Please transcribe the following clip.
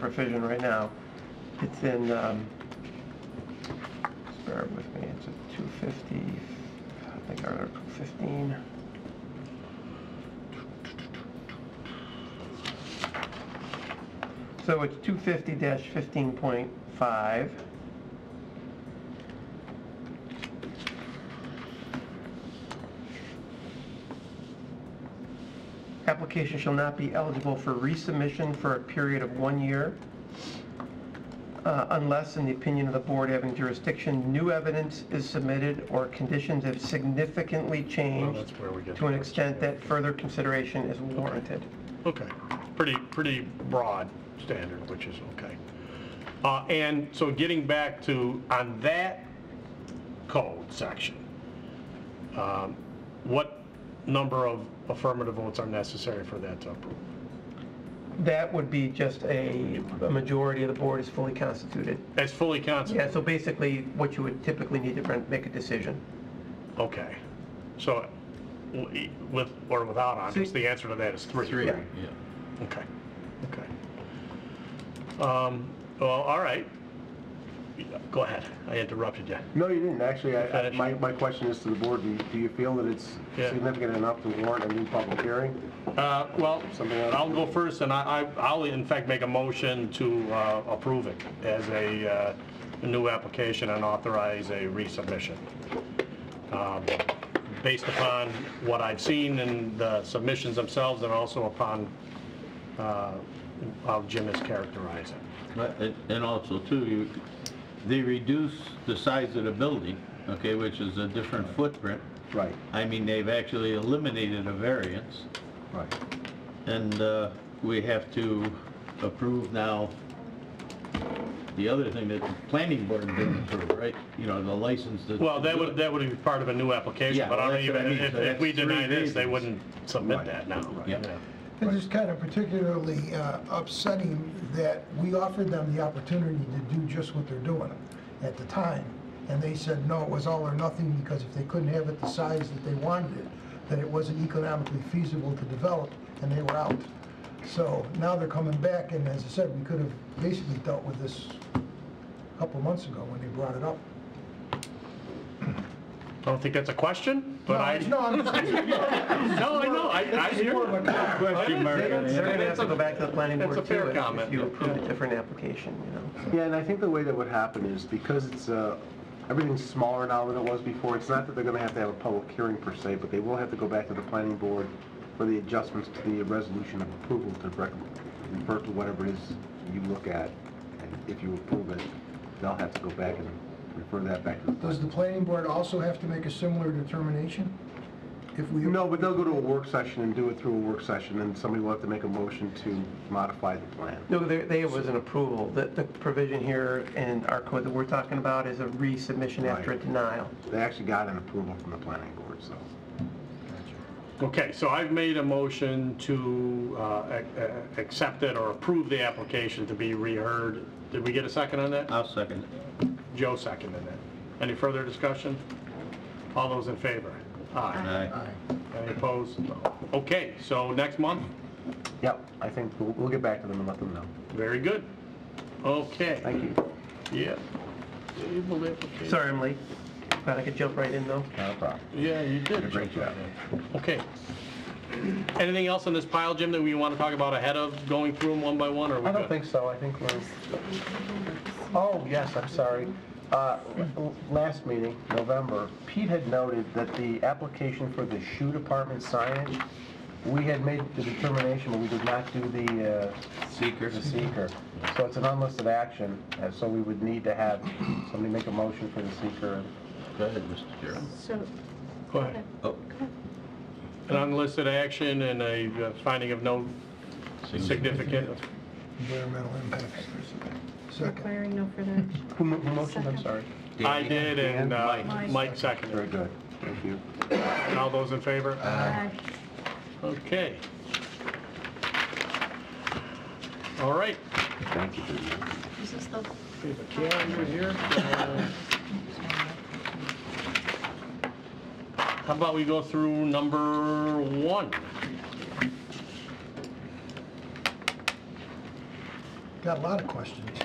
revision right now. It's in, um, just bear with me, it's a 250, I think Article 15. So it's 250-15.5. Application shall not be eligible for resubmission for a period of one year uh, unless, in the opinion of the board having jurisdiction, new evidence is submitted or conditions have significantly Well, changed that's where we get. to an the- extent that further consideration is warranted. Okay, pretty, pretty broad standard, which is okay. Uh, And so getting back to, on that code section, um, what number of affirmative votes are necessary for that to approve? That would be just a majority of the board is fully constituted. As fully constituted? Yeah, so basically, what you would typically need to run- make a decision. Okay, so w- with, or without Andres, the answer to that is three? Three, Yeah. yeah. Okay, okay. Um, Well, all right. Go ahead, I interrupted you. No, you didn't, actually, I- I- Finish. my, my question is to the board, do you- do you feel that it's Yeah. significant enough to warrant a new public hearing? Uh, Well, Something else? I'll go first, and I- I- I'll in fact make a motion to uh, approve it as a uh, new application and authorize a resubmission. Um, Based upon what I've seen in the submissions themselves and also upon uh, how Jim has characterized it. But it- And also too, you, they reduce the size of the building, okay, which is a different footprint. Right, I mean, they've actually eliminated a variance, right. and uh, we have to approve now the other thing that the planning board didn't approve, right? You know, the license to... Well, that would, that would be part of a new application, Yeah, but I well, don't that's what I even, mean, if so if we that's three deny this, they reasons. wouldn't submit Right. that now. Yeah. This is kind of particularly uh, upsetting that we offered them the opportunity to do just what they're doing at the time, and they said, no, it was all or nothing, because if they couldn't have it the size that they wanted it, that it wasn't economically feasible to develop, and they were out. So now they're coming back, and as I said, we could have basically dealt with this a couple months ago when they brought it up. I don't think that's a question, but I, No, I'm just, no, I know, I, I hear. more of a Question mark on They're it. going to have to go back to the planning That's board a too. fair if- comment, If you yeah. approve a different application, you know. Yeah, and I think the way that would happen is because it's, uh, everything's smaller now than it was before, it's not that they're gonna have to have a public hearing per se, but they will have to go back to the planning board for the adjustments to the resolution of approval to rec- refer to whatever it is you look at, and if you approve it, they'll have to go back and refer that back to the... does the planning board also have to make a similar determination? If we... No, but they'll go to a work session and do it through a work session, and somebody will have to make a motion to modify the plan. No, there, there was an approval. The, the provision here in our code that we're talking about is a resubmission after a Right. denial. They actually got an approval from the planning board, so... Okay, so I've made a motion to uh, ac- uh, accept it or approve the application to be reheard. Did we get a second on that? I'll second it. Joe seconded that. Any further discussion? All those in favor? Aye. Aye. Any opposed? Okay, so next month? Yep, I think we'll, we'll get back to them and let them know. Very good. Okay, Thank you. yeah. Table application. Sorry I'm late. Glad I could jump right in though. No problem. Yeah, you did. Great jump on job. that. Okay. Anything else in this pile, Jim, that we want to talk about ahead of going through them one by one, or we I good? don't think so, I think we're... Oh, yes, I'm sorry. Uh, l- Last meeting, November, Pete had noted that the application for the shoe department signage, we had made the determination, but we did not do the, uh, Seeker. the seeker. So it's an unlisted action, and so we would need to have somebody make a motion for the seeker. Go ahead, Mr. Chairman. So, Go ahead. Oh, An unlisted action and a uh, finding of no significant, Environmental impacts. Second. requiring no further action. Who mo- who motioned, I'm Second. sorry? I did, and uh, Mike. Mike Very seconded. good, thank you. And All those in favor? Aye. Okay. All right. Thank you. This is the We have a calendar here. Uh, How about we go through number one? Got a lot of questions.